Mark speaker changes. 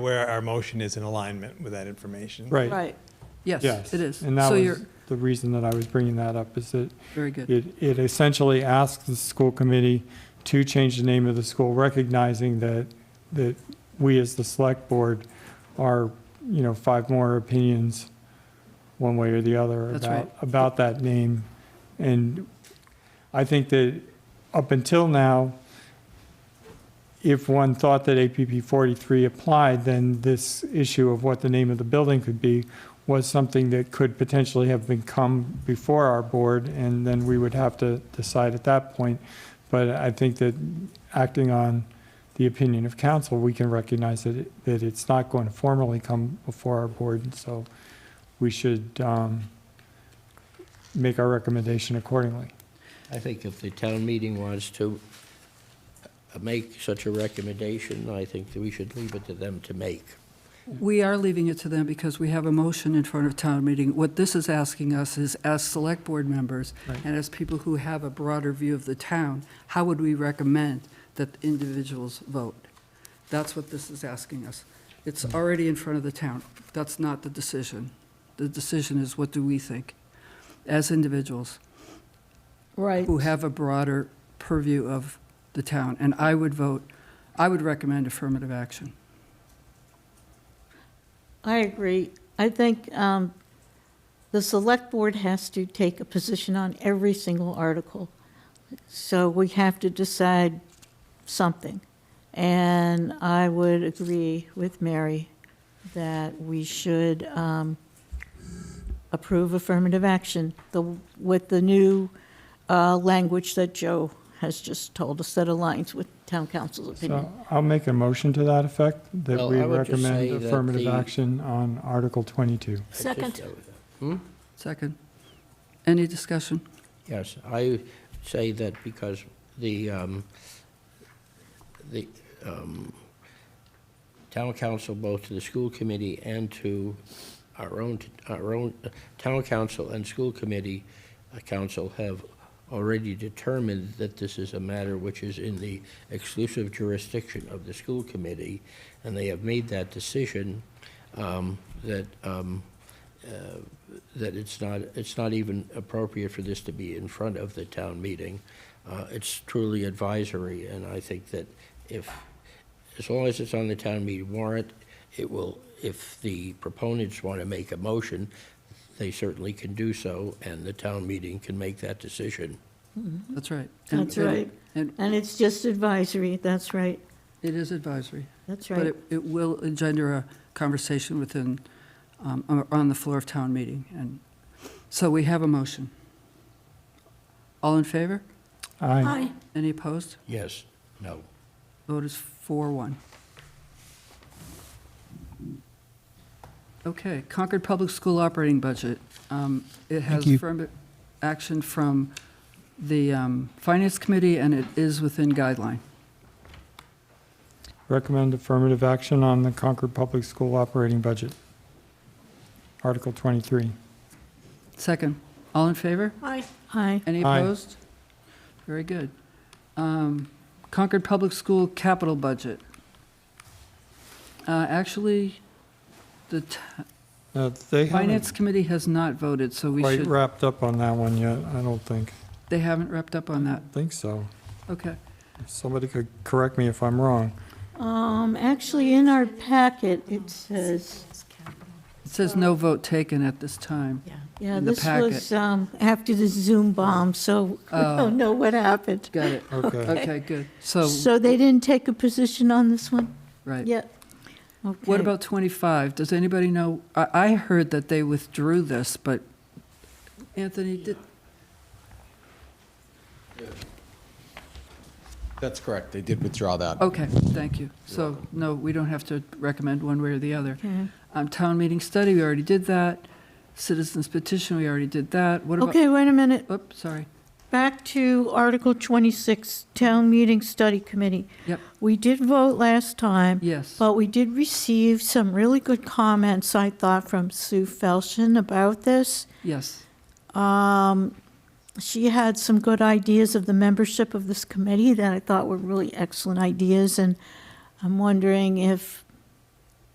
Speaker 1: where our motion is in alignment with that information.
Speaker 2: Right,
Speaker 3: Right,
Speaker 2: yes.
Speaker 3: yes, it is.
Speaker 2: And that
Speaker 3: So you're,
Speaker 2: was the reason that I was bringing that up, is that
Speaker 3: very good.
Speaker 2: it, it essentially asks the school committee to change the name of the school, recognizing that, that we as the select board are, you know, five more opinions, one way or the other,
Speaker 3: That's
Speaker 2: about,
Speaker 3: right.
Speaker 2: about that name. And I think that up until now, if one thought that APP 43 applied, then this issue of what the name of the building could be was something that could potentially have been come before our board, and then we would have to decide at that point. But I think that acting on the opinion of council, we can recognize that, it- that it's not going to formally come before our board, and so we should um, make our recommendation accordingly.
Speaker 4: I think if the town meeting wants to uh, make such a recommendation, I think that we should leave it to them to make.
Speaker 3: We are leaving it to them because we have a motion in front of town meeting. What this is asking us is, as select board members
Speaker 2: Right.
Speaker 3: and as people who have a broader view of the town, how would we recommend that individuals vote? That's what this is asking us. It's already in front of the town. That's not the decision. The decision is, what do we think as individuals?
Speaker 5: Right.
Speaker 3: who have a broader purview of the town, and I would vote, I would recommend affirmative action.
Speaker 5: I agree. I think um, the select board has to take a position on every single article. So we have to decide something. And I would agree with Mary that we should um, approve affirmative action the- with the new uh, language that Joe has just told us that aligns with town council's opinion.
Speaker 2: So I'll make a motion to that effect, that
Speaker 4: Well,
Speaker 2: we
Speaker 4: I would just say
Speaker 2: recommend
Speaker 4: that
Speaker 2: affirmative
Speaker 4: the-
Speaker 2: action on Article 22.
Speaker 4: I just-
Speaker 5: Second.
Speaker 3: Second. Any discussion?
Speaker 4: Yes, I say that because the, um, the um, town council, both to the school committee and to our own, our own, uh, town council and school committee, uh, council have already determined that this is a matter which is in the exclusive jurisdiction of the school committee, and they have made that decision um, that, um, uh, that it's not, it's not even appropriate for this to be in front of the town meeting. Uh, It's truly advisory, and I think that if, as long as it's on the town meeting warrant, it will, if the proponents want to make a motion, they certainly can do so, and the town meeting can make that decision.
Speaker 3: That's right. And-
Speaker 5: That's right.
Speaker 3: And
Speaker 5: And it's just advisory, that's right,
Speaker 3: it is advisory,
Speaker 5: that's
Speaker 3: but
Speaker 5: right.
Speaker 3: it, it will engender a conversation within, um, on- on the floor of town meeting. And so we have a motion. All in favor?
Speaker 2: Aye.
Speaker 3: Any opposed?
Speaker 4: Yes, no.
Speaker 3: Vote is four one. Okay, Concord Public School operating budget. Um, It has
Speaker 2: you.
Speaker 3: affirmative action from the um, Finance Committee, and it is within guideline.
Speaker 2: Recommend affirmative action on the Concord Public School operating budget. Article 23.
Speaker 3: Second, all in favor?
Speaker 5: Aye. Aye.
Speaker 3: Any
Speaker 2: Aye.
Speaker 3: opposed? Very good. Um, Concord Public School capital budget. Uh, Actually, the t-
Speaker 2: Uh, They
Speaker 3: Finance
Speaker 2: haven't
Speaker 3: Committee has not voted, so we
Speaker 2: quite
Speaker 3: should,
Speaker 2: wrapped up on that one yet, I don't think.
Speaker 3: they haven't wrapped up on that.
Speaker 2: Think so.
Speaker 3: Okay.
Speaker 2: Somebody could correct me if I'm wrong.
Speaker 5: Um, actually, in our packet, it says,
Speaker 3: It says no vote taken at this time.
Speaker 5: yeah,
Speaker 3: In the
Speaker 5: this was, um, after the Zoom bomb, so we
Speaker 3: Oh.
Speaker 5: don't know what happened.
Speaker 3: Got it.
Speaker 2: Okay.
Speaker 3: Okay, good. So,
Speaker 5: So they didn't take a position on this one
Speaker 3: right.
Speaker 5: yet?
Speaker 3: What
Speaker 5: Okay.
Speaker 3: about 25? Does anybody know, I, I heard that they withdrew this, but Anthony, did,
Speaker 6: That's correct. They did withdraw that.
Speaker 3: okay, thank you. So, no, we don't have to recommend one way or the other.
Speaker 5: Okay.
Speaker 3: Um, Town meeting study, we already did that. Citizens petition, we already did that. What about,
Speaker 5: Okay, wait a minute,
Speaker 3: oops, sorry.
Speaker 5: back to Article 26, Town Meeting Study Committee.
Speaker 3: Yep.
Speaker 5: We did vote last time.
Speaker 3: Yes,
Speaker 5: But we did receive some really good comments, I thought, from Sue Felshen about this.
Speaker 3: yes,
Speaker 5: Um, She had some good ideas of the membership of this committee that I thought were really excellent ideas, and I'm wondering if